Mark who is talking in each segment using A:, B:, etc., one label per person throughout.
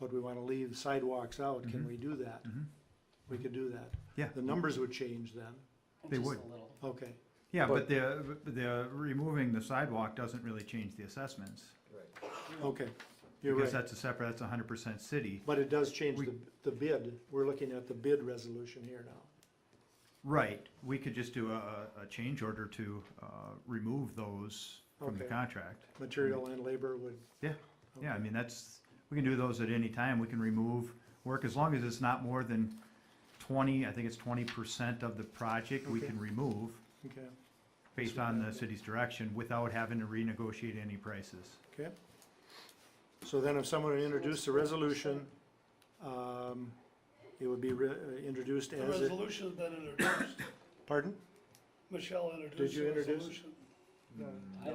A: but we wanna leave sidewalks out, can
B: Mhm.
A: we do that?
B: Mhm.
A: We could do that.
B: Yeah.
A: The numbers would change then,
B: They
C: Just a
B: would.
C: little.
A: okay.
B: Yeah,
A: But-
B: but the, the removing the sidewalk doesn't really change the assessments.
D: Right.
A: Okay, you're
B: Because
A: right.
B: that's a separate, that's hundred percent city.
A: But it does change
B: We-
A: the, the bid. We're looking at the bid resolution here now.
B: Right, we could just do a, a- a change order to, uh, remove those from the
A: Okay.
B: contract.
A: Material and labor would.
B: Yeah, yeah, I
A: Okay.
B: mean, that's, we can do those at any time, we can remove work, as long as it's not more than twenty, I think it's twenty percent of the project we
A: Okay.
B: can remove
A: Okay,
B: based on the city's direction without having to renegotiate any prices.
A: okay. So then if someone would introduce the resolution, um, it would be re- uh, introduced
E: The
A: as it,
E: resolution's been introduced.
A: pardon?
E: Michelle introduced
A: you
E: the
A: introduce it?
E: resolution.
C: I don't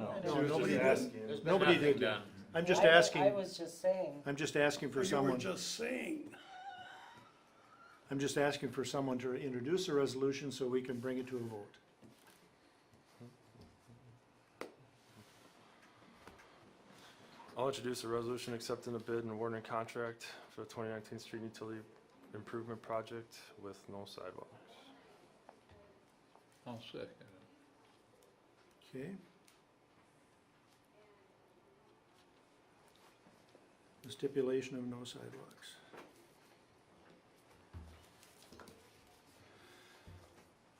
A: No,
C: know.
D: She was just
A: nobody did.
D: asking.
F: There's been
A: Nobody
F: nothing
A: did.
F: done.
A: I'm
C: I
A: just
C: wa- I
A: asking,
C: was just saying,
A: I'm just asking for
E: You were
A: someone,
E: just saying,
A: I'm just asking for someone to introduce a resolution so we can bring it to a vote.
G: I'll introduce a resolution accepting a bid and awarding a contract for the 2019 street utility improvement project with no sidewalk.
F: I'll second
A: Okay. The stipulation of no sidewalks.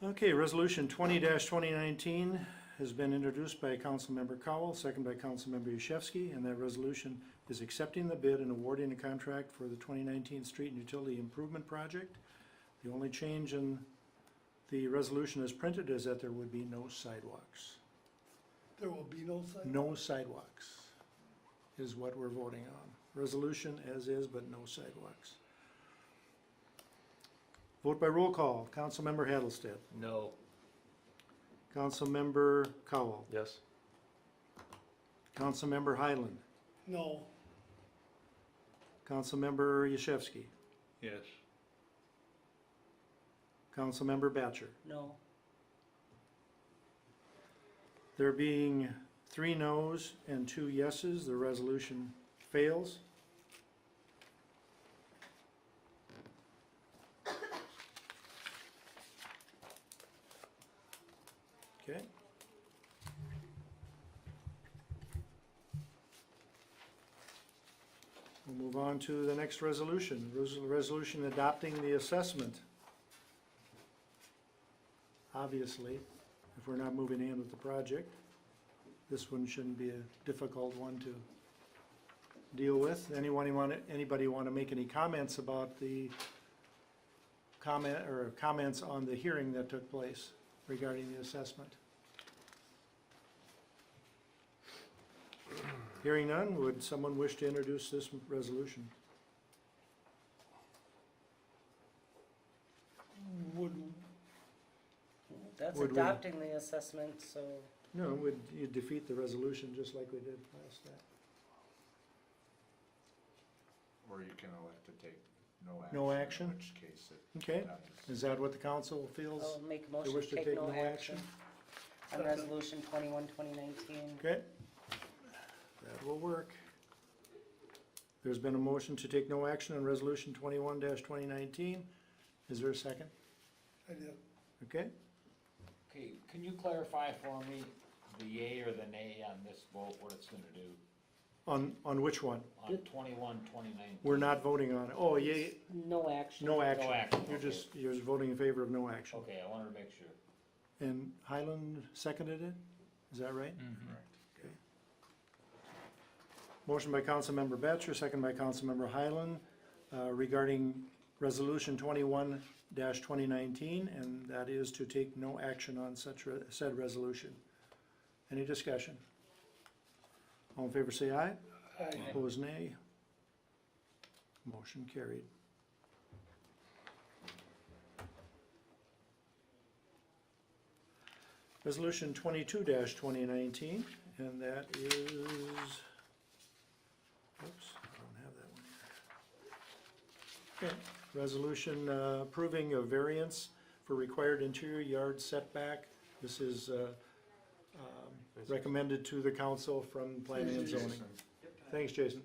A: Okay, resolution twenty twenty nineteen has been introduced by Councilmember Cowell, second by Councilmember Yashewski, and that resolution is accepting the bid and awarding a contract for the twenty nineteen street and utility improvement project. The only change in the resolution as printed is that there would be no sidewalks.
E: there will be no sign.
A: No sidewalks is what we're voting on. Resolution as is, but no sidewalks. Vote by roll call. Councilmember Hattlestead.
D: No.
A: Councilmember Cowell.
G: Yes?
A: Councilmember Highland.
E: No,
A: Councilmember Yashewski.
F: Yes.
A: Councilmember Batcher.
C: no,
A: There being three noes and two yeses, the resolution fails. Okay. We'll move on to the next resolution, Res- resolution adopting the assessment. Obviously if we're not moving in with the project. This one shouldn't be a difficult one to deal with. Anyone want, anybody want to make any comments about the comment, or comments on the hearing that took place regarding the assessment? Hearing none, would someone wish to introduce this resolution?
E: would,
C: that's
A: Would we-
C: adopting the assessment, so
A: No, would you defeat the resolution just like we did last time?
D: Or you can elect to take no action.
A: No action?
D: In which case it.
A: Okay, is that what the council
C: I'll
A: feels?
C: make a
A: They
C: motion
A: wish
C: to take no action on
E: Second.
C: resolution twenty-one, twenty nineteen.
A: Okay. That will work. There's been a motion to take no action on resolution twenty-one twenty nineteen. Is there a second?
E: I did,
A: Okay,
H: Okay, can you clarify for me the yay or the nay on this vote, what it's gonna do
A: on, on which one?
H: on twenty-one, twenty-nine?
A: We're not voting on it. Oh, yay,
C: No action.
A: no action.
H: action,
A: You're
H: okay.
A: just, you're just voting in favor of no action.
H: Okay, I wanted to make sure.
A: And Highland seconded it? Is that right?
F: Mm-hmm.
A: Motion by Councilmember Batchor, second by Councilmember Highland, uh, regarding Resolution twenty-one twenty nineteen, and that is to take no action on such, re- said resolution. Any discussion? All in favor say aye.
E: I,
A: Opposed, nay. Motion carried. Resolution twenty-two twenty nineteen, and that is, oops, I don't have that one here. Okay, resolution uh, approving a variance for required interior yard setback. This is uh, um, recommended to the council from planning and zoning. Thanks, Jason.